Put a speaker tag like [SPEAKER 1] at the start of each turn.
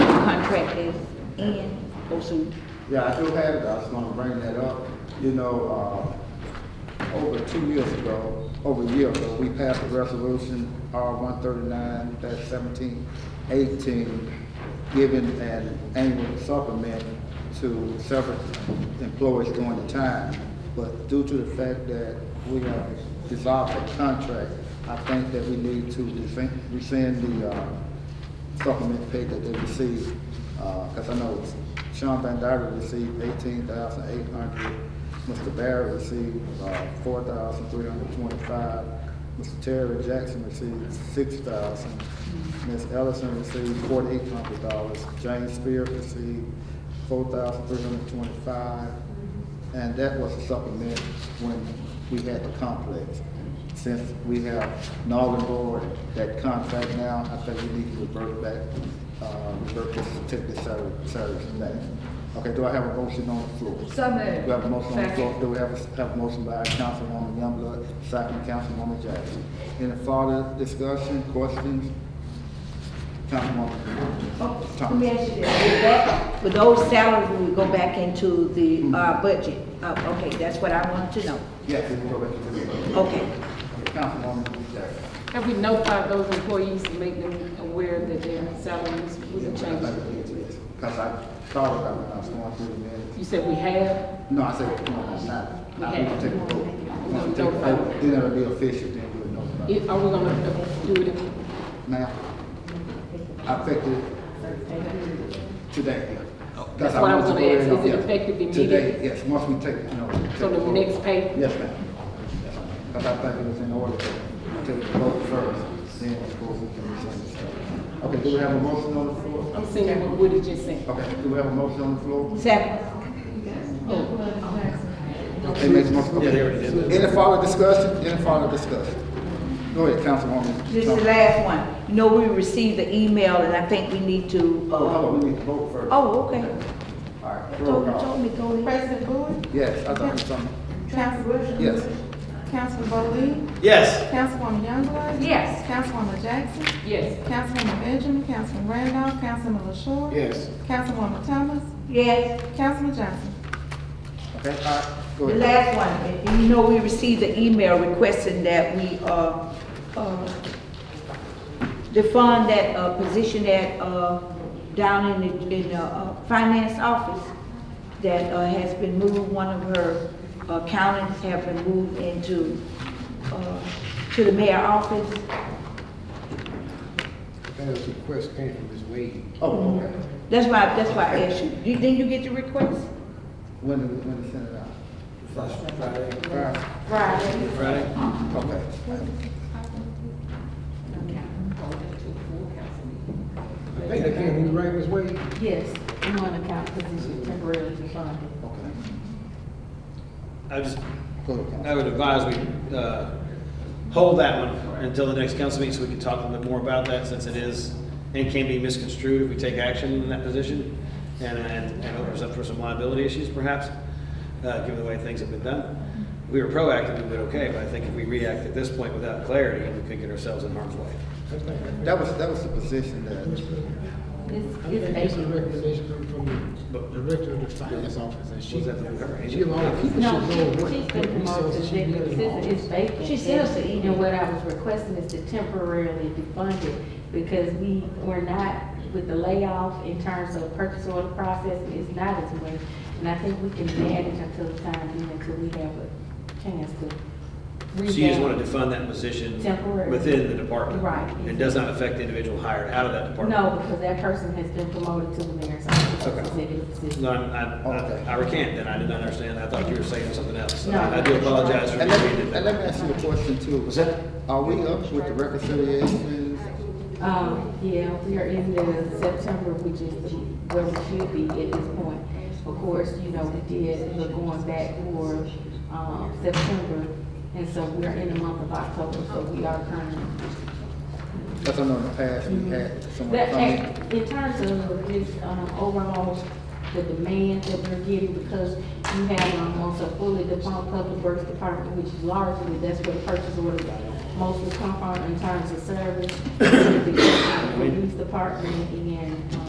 [SPEAKER 1] contract is in, or soon?
[SPEAKER 2] Yeah, I do have it, I just wanna bring that up. You know, uh, over two years ago, over a year ago, we passed a resolution, R one thirty-nine, that's seventeen eighteen, giving an annual supplement to several employees during the time. But due to the fact that we uh, dissolved the contract, I think that we need to rescind- rescind the, uh, supplement pay that they received, because I know Sean Van Dyke received eighteen thousand eight hundred, Mr. Barrett received uh, four thousand three hundred twenty-five, Mr. Terry Jackson received six thousand, Ms. Ellison received forty-eight hundred dollars, James Spear received four thousand three hundred twenty-five, and that was a supplement when we had the complex. Since we have null and void that contract now, I think we need to revert back, uh, revert this, take this salary, salary from that. Okay, do I have a motion on the floor?
[SPEAKER 3] So
[SPEAKER 2] Do we
[SPEAKER 3] moved.
[SPEAKER 2] have a motion on the floor? Do we have, a- have a motion by Councilwoman Youngblood, second Councilwoman Jackson? Any further discussion, questions? Councilwoman
[SPEAKER 1] Oh, Let me
[SPEAKER 2] Thomas?
[SPEAKER 1] ask you this, Would that- would those salaries would go back into
[SPEAKER 2] Mm-hmm.
[SPEAKER 1] the, uh, budget? Uh, okay, that's what I want to know.
[SPEAKER 2] Yes, we can go back to the vote.
[SPEAKER 1] Okay,
[SPEAKER 2] Councilwoman Jackson?
[SPEAKER 4] Have we notified those employees to make them aware that their salaries was a change?
[SPEAKER 2] Because I thought about it when I was going through the minutes.
[SPEAKER 4] You said we have,
[SPEAKER 2] No, I said, no, I'm not. Not
[SPEAKER 4] Okay.
[SPEAKER 2] going to take a vote. Once we take a vote, Then it'll be official, then we'll know about it.
[SPEAKER 4] It- are we gonna do it in-
[SPEAKER 2] Now, affected today.
[SPEAKER 4] That's what I was gonna ask. Is it
[SPEAKER 2] effective
[SPEAKER 4] effective
[SPEAKER 2] Today,
[SPEAKER 4] immediately?
[SPEAKER 2] yes, once we take, you know. take
[SPEAKER 4] So the
[SPEAKER 2] vote.
[SPEAKER 4] next pay?
[SPEAKER 2] Yes, ma'am. Because I think it was in order to take the vote first, then of course we can rescind the stuff. Okay, do we have a motion on the floor?
[SPEAKER 4] I'm seeing what Woody just said.
[SPEAKER 2] Okay, do we have a motion on the floor?
[SPEAKER 1] second,
[SPEAKER 2] They made the motion. Any further discussion? Any further discussion? Go ahead, Councilwoman.
[SPEAKER 1] this is the last one. You know, we received the email and I think we need to,
[SPEAKER 2] Oh, hold
[SPEAKER 1] uh,
[SPEAKER 2] on, we need to vote first. All
[SPEAKER 1] oh, okay.
[SPEAKER 2] right, roll
[SPEAKER 1] Told,
[SPEAKER 2] call.
[SPEAKER 1] told me, go ahead.
[SPEAKER 5] President Bowie,
[SPEAKER 2] Yes, I thought it was something.
[SPEAKER 5] Council Williams.
[SPEAKER 2] Yes.
[SPEAKER 5] Councilman Bowlin,
[SPEAKER 6] Yes.
[SPEAKER 5] Councilwoman Youngblood.
[SPEAKER 3] Yes.
[SPEAKER 5] Councilwoman Jackson,
[SPEAKER 4] Yes,
[SPEAKER 5] Councilwoman Benjamin, Councilman Randolph, Councilman LaShaw.
[SPEAKER 2] Yes.
[SPEAKER 5] Councilwoman Thomas,
[SPEAKER 1] Yes,
[SPEAKER 5] Councilman Johnson.
[SPEAKER 2] Okay, all right, go
[SPEAKER 1] the last
[SPEAKER 2] ahead.
[SPEAKER 1] one. And You know, we received the email requesting that we, uh, uh, defund that, uh, position that, uh, down in the, in the, uh, finance office that, uh, has been moved, one of her accountants have been moved into, uh, to the mayor office.
[SPEAKER 7] That was a request came from Ms. Wade.
[SPEAKER 2] Oh, okay.
[SPEAKER 1] That's why, that's why I asked you. You- Didn't you get the request?
[SPEAKER 2] When did, we- when did it send it out? Friday.
[SPEAKER 1] Right.
[SPEAKER 7] Friday?
[SPEAKER 2] Okay.
[SPEAKER 7] I think that came from the right Ms. Wade.
[SPEAKER 3] Yes, we want to count position temporarily funded.
[SPEAKER 2] Okay.
[SPEAKER 6] I just,
[SPEAKER 2] Go ahead, Councilwoman.
[SPEAKER 6] I would advise we, uh, hold that one until the next council meeting so we can talk a little bit more about that since it is, and can be misconstrued if we take action in that position and, and and opens up for some liability issues perhaps, uh, given the way things have been done. If We were proactive, we did okay, but I think if we react at this point without clarity, we could get ourselves in harm's way.
[SPEAKER 2] That was, that was the position that,
[SPEAKER 3] It's,
[SPEAKER 7] I think
[SPEAKER 3] it's
[SPEAKER 7] this is a
[SPEAKER 3] eight.
[SPEAKER 7] recommendation coming from the director of the finance office, and she,
[SPEAKER 6] Was that the government?
[SPEAKER 7] she allowed people
[SPEAKER 3] No,
[SPEAKER 7] should know
[SPEAKER 3] she-
[SPEAKER 7] what
[SPEAKER 3] she's
[SPEAKER 7] what
[SPEAKER 3] been promoted to
[SPEAKER 7] resources she
[SPEAKER 3] executive
[SPEAKER 7] needed.
[SPEAKER 3] assistant, it's vacant.
[SPEAKER 1] She sent us an
[SPEAKER 3] And-
[SPEAKER 1] email.
[SPEAKER 3] And what I was requesting is to temporarily defund it, because we, were not, with the layoff in terms of purchase order process, it's not as much. And I think we can manage until the time being, until we have a chance to.
[SPEAKER 6] So you just
[SPEAKER 3] revamp.
[SPEAKER 6] want to defund that position
[SPEAKER 3] Temporary.
[SPEAKER 6] within the department?
[SPEAKER 3] Right.
[SPEAKER 6] It does not affect the individual hired out of that department?
[SPEAKER 3] No, because that person has been promoted to the mayor's office.
[SPEAKER 6] Okay.
[SPEAKER 3] executive assistant.
[SPEAKER 6] No, I'm- I,
[SPEAKER 2] Okay.
[SPEAKER 6] I, I recant then, I did not understand, I thought you were saying something else, so
[SPEAKER 3] No.
[SPEAKER 6] I do apologize for
[SPEAKER 2] and let, me-
[SPEAKER 6] reading
[SPEAKER 2] and let me
[SPEAKER 6] that.
[SPEAKER 2] ask you a question too.
[SPEAKER 6] Was that,
[SPEAKER 2] Are we up with the reconciliations?
[SPEAKER 3] Um, yeah, we are in the September, which is the- where we should be at this point. Of course, you know, we did the going back for, um, September, and so we're in the month of October, so we are currently.
[SPEAKER 2] That's I know in the past, we had someone
[SPEAKER 3] But
[SPEAKER 2] come in.
[SPEAKER 3] hey, in terms of this, um, overall, the demand that we're getting, because you have, um, also fully defunct public works department, which largely, that's where the purchase orders mostly come from in terms of service. The police department and, um,